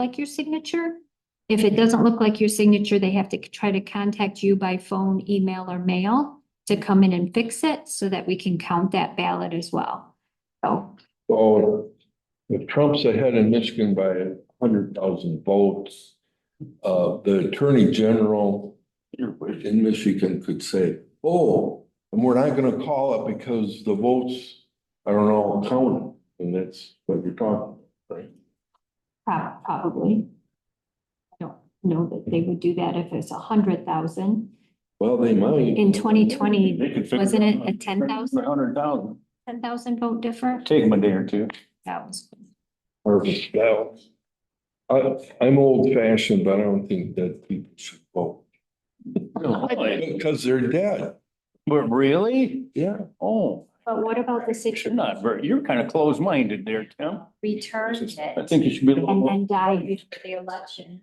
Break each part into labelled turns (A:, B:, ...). A: like your signature. If it doesn't look like your signature, they have to try to contact you by phone, email, or mail to come in and fix it so that we can count that ballot as well. So,
B: So if Trump's ahead in Michigan by a hundred thousand votes, uh, the attorney general in Michigan could say, oh, and we're not gonna call it because the votes are all counted. And that's what you're talking, about, right?
A: prob- probably. I don't know that they would do that if it's a hundred thousand.
B: Well, they might.
A: In 2020,
B: They could figure
A: wasn't it
B: out.
A: a 10,000?
B: hundred thousand.
A: Ten thousand vote different.
C: Take them a day or two.
A: That was,
B: Harvest ballot. I, I'm old fashioned, but I don't think that people should vote because they're dead.
C: But really?
B: Yeah.
C: Oh,
A: but what about the
C: you
A: six
C: should not, ver- you're kind of closed-minded there, Tim.
A: returns
C: I
A: it
C: think you should be a
A: and
C: little,
A: then die before the election?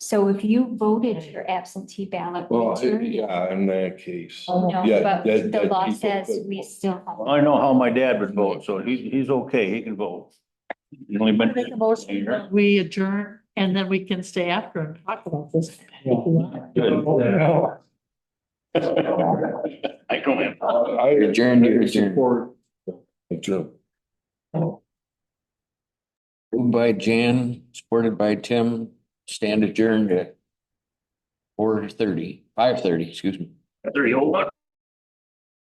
A: So if you voted your absentee ballot,
B: Well, I-
A: return it.
B: yeah, in that case.
A: No,
B: yeah,
A: but
B: that-
A: the
B: that
A: law
B: people
A: says
B: could-
A: we still have.
C: I know how my dad would vote, so he's, he's okay, he can vote. He's only been.
D: Make a motion that we adjourn and then we can stay after and talk about this. if you want.
C: Good. I don't have.
B: I adjourn, adjourn. Adjourn.
E: Moved by Jan, supported by Tim, stand adjourned at four thirty, five thirty, excuse me.
C: There you go.